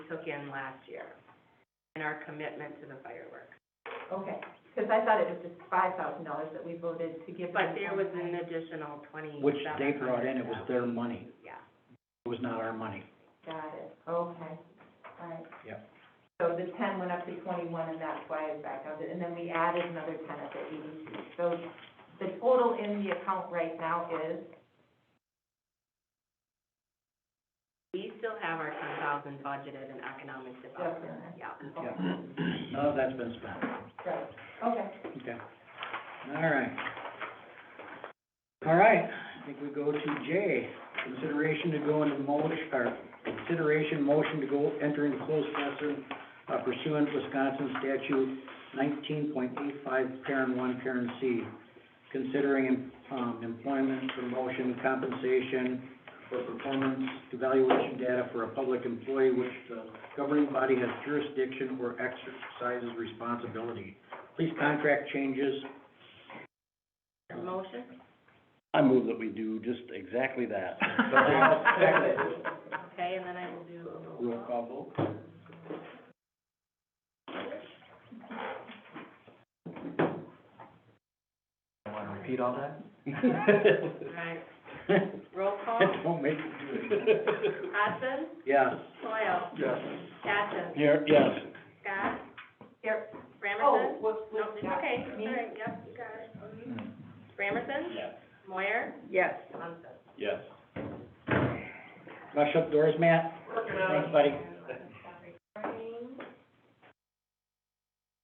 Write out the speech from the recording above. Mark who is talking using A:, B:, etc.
A: took in last year and our commitment to the fireworks.
B: Okay, because I thought it was just five thousand dollars that we voted to give them.
A: But there was an
B: one time.
A: additional twenty-seven hundred.
C: Which they brought in, it was their money,
A: Yeah.
C: it was not our money.
B: Got it, okay, all right.
C: Yep.
B: So the ten went up to twenty-one, and that's why it's back up, and then we added another ten at the EDC. So the total in the account right now is,
A: We still have our ten thousand budgeted in economic development, yeah.
B: okay,
C: None of that's been spent,
B: right, okay.
C: okay. All right. All right, I think we go to J, consideration to go into motion, or consideration motion to go enter into closed session uh, pursuant to Wisconsin statute nineteen point eight five, parent one, parent C, considering, um, employment, promotion, compensation, or performance evaluation data for a public employee which the governing body has jurisdiction or exercises responsibility. Please contract changes.
A: The motion?
D: I move that we do just exactly that.
A: Okay, and then I will do a roll.
C: Roll call vote.
D: Want to repeat all that?
A: All right, roll call.
C: Don't make me do it.
A: Hudson,
C: Yes.
A: Toil,
C: Yes.
A: Batson,
D: Here, yes.
A: Scott,
B: Here, oh,
A: Bramerson.
B: whoops,
A: No,
B: whoops,
A: it's
B: yeah,
A: okay,
B: me?
A: all right, yep, you got it.
D: Hmm.
A: Bramerson?
D: Yes.
A: Moyer? Yes. Munson?
D: Yes.
C: Rush up doors, Matt. Thanks, buddy.